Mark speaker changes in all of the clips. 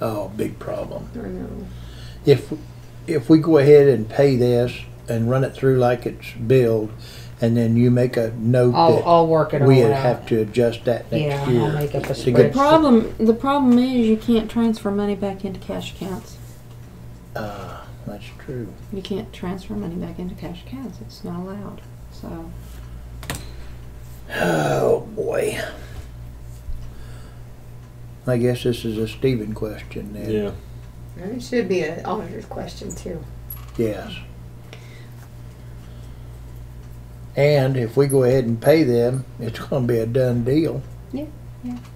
Speaker 1: Oh, big problem.
Speaker 2: I know.
Speaker 1: If, if we go ahead and pay this and run it through like it's billed, and then you make a note
Speaker 3: I'll,
Speaker 1: that
Speaker 3: I'll work it all
Speaker 1: we
Speaker 3: out.
Speaker 1: have to adjust that
Speaker 3: Yeah,
Speaker 1: next
Speaker 3: I'll
Speaker 1: year.
Speaker 3: make up a
Speaker 1: to get-
Speaker 3: spreadsheet.
Speaker 2: Problem, the problem is you can't transfer money back into cash accounts.
Speaker 1: Uh, That's true.
Speaker 2: You can't transfer money back into cash accounts. It's not allowed. So
Speaker 1: Oh, boy. I guess this is a Stephen question then.
Speaker 4: Yeah.
Speaker 5: It should be an auditor's question too.
Speaker 1: Yes. And if we go ahead and pay them, it's gonna be a done deal.
Speaker 2: yeah,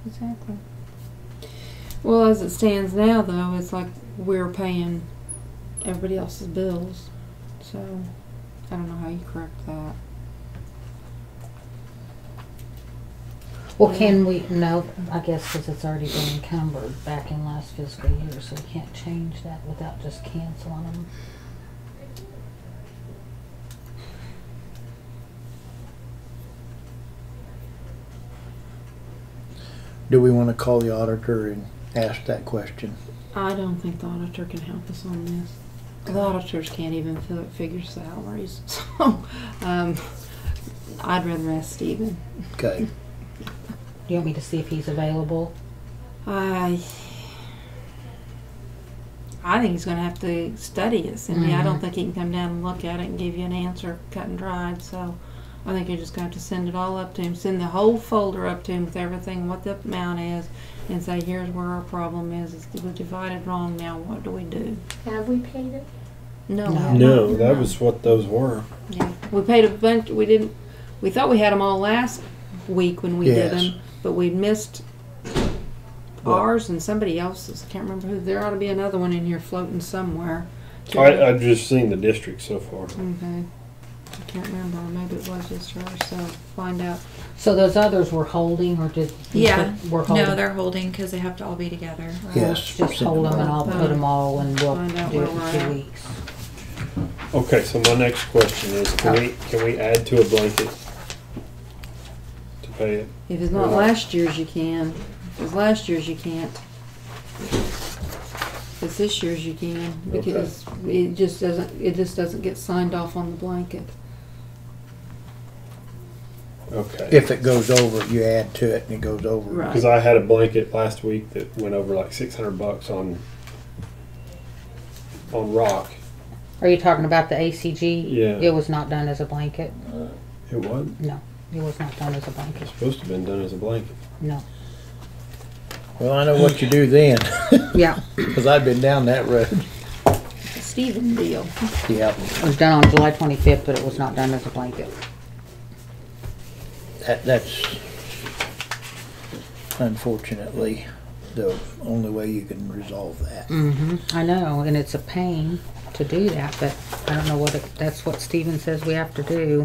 Speaker 2: exactly. Well, as it stands now, though, it's like we're paying everybody else's bills. So I don't know how you correct that.
Speaker 3: Well, can we, no, I guess because it's already been encumbered back in last fiscal year, so we can't change that without just canceling them.
Speaker 1: Do we wanna call the auditor and ask that question?
Speaker 2: I don't think the auditor can help us on this. The auditors can't even fi- figure salaries. So um, I'd rather ask Stephen.
Speaker 1: Okay,
Speaker 3: Do you want me to see if he's available?
Speaker 2: I I think he's going to have to study it, Cindy. I don't
Speaker 3: Mhm.
Speaker 2: think he can come down and look at it and give you an answer cut and dried. So I think you're just going to have to send it all up to him. Send the whole folder up to him with everything, what the amount is, and say, here's where our problem is. It's, we divided wrong now. What do we do?
Speaker 5: Have we paid it?
Speaker 2: No.
Speaker 3: No.
Speaker 4: No, that was what those were.
Speaker 2: Yeah. We paid a bunch. We didn't. We thought we had them all last week when we
Speaker 1: Yes.
Speaker 2: did them, but we missed
Speaker 1: Well-
Speaker 2: ours and somebody else's. Can't remember who. There ought to be another one in here floating somewhere.
Speaker 4: I, I've just seen the district so far.
Speaker 2: okay. I can't remember. Maybe it was just her. So find out.
Speaker 3: So those others were holding or did? you
Speaker 6: Yeah.
Speaker 3: put- Were holding?
Speaker 6: No, they're holding because they have to all be together.
Speaker 1: yes.
Speaker 3: Just hold them and I'll put them all and we'll
Speaker 2: Oh. Find out
Speaker 3: do it
Speaker 2: where we're
Speaker 3: in two
Speaker 2: at.
Speaker 3: weeks.
Speaker 4: Okay, so my next question is, can we, can we add to a blanket to pay it?
Speaker 2: If it's
Speaker 1: uh,
Speaker 2: not last year's, you can. If it's last year's, you can't. If it's this year's, you can because it just doesn't. It just doesn't get signed off on the blanket.
Speaker 4: Okay.
Speaker 1: If it goes over, you add to it and it goes over.
Speaker 2: Right.
Speaker 4: Because I had a blanket last week that went over like six hundred bucks on, on rock.
Speaker 3: Are you talking about the ACG?
Speaker 4: Yeah.
Speaker 3: It was not done as a blanket?
Speaker 4: It wasn't,
Speaker 3: No, it was not done as a blanket,
Speaker 4: it's supposed to have been done as a blanket.
Speaker 3: no.
Speaker 1: Well, I know what you do then,
Speaker 3: Yeah,
Speaker 1: cause I've been down that road.
Speaker 2: Stephen deal.
Speaker 1: Yeah,
Speaker 3: it was done on July twenty-fifth, but it was not done as a blanket.
Speaker 1: that, that's unfortunately the only way you can resolve that.
Speaker 3: hmm I know, and it's a pain to do that, but I don't know what, it- that's what Steven says we have to do.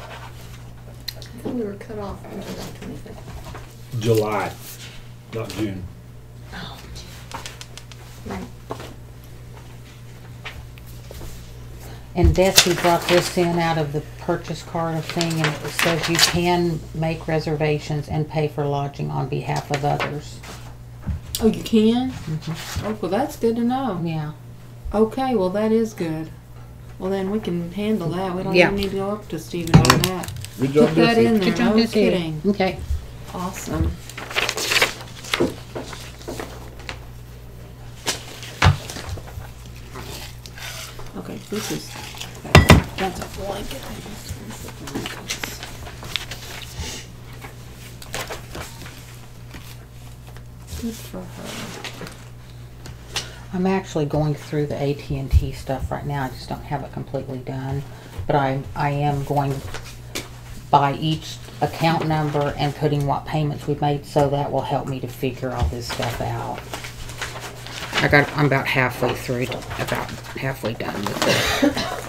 Speaker 5: I think we were cut off on July twenty-fifth.
Speaker 4: July, not June.
Speaker 5: Oh, Right.
Speaker 3: And Desi brought this in out of the purchase card thing, and it says you can make reservations and pay for lodging on behalf of others.
Speaker 2: Oh, you can? Oh, well, that's good to know.
Speaker 3: Mm-hmm. Yeah,
Speaker 2: Okay, well, that is good. Well, then we can handle that. We don't
Speaker 3: Yeah.
Speaker 2: even need to go up to Stephen on that.
Speaker 4: Good
Speaker 2: Put that in there.
Speaker 3: Good job,
Speaker 2: No
Speaker 3: Desi.
Speaker 2: kidding.
Speaker 3: okay.
Speaker 2: Awesome. Okay, this is that's a blanket. Good for her.
Speaker 3: I'm actually going through the AT&T stuff right now. I just don't have it completely done, but I I am going by each account number and putting what payments we've made, so that will help me to figure all this stuff out. I got I'm about halfway through, about halfway done with it.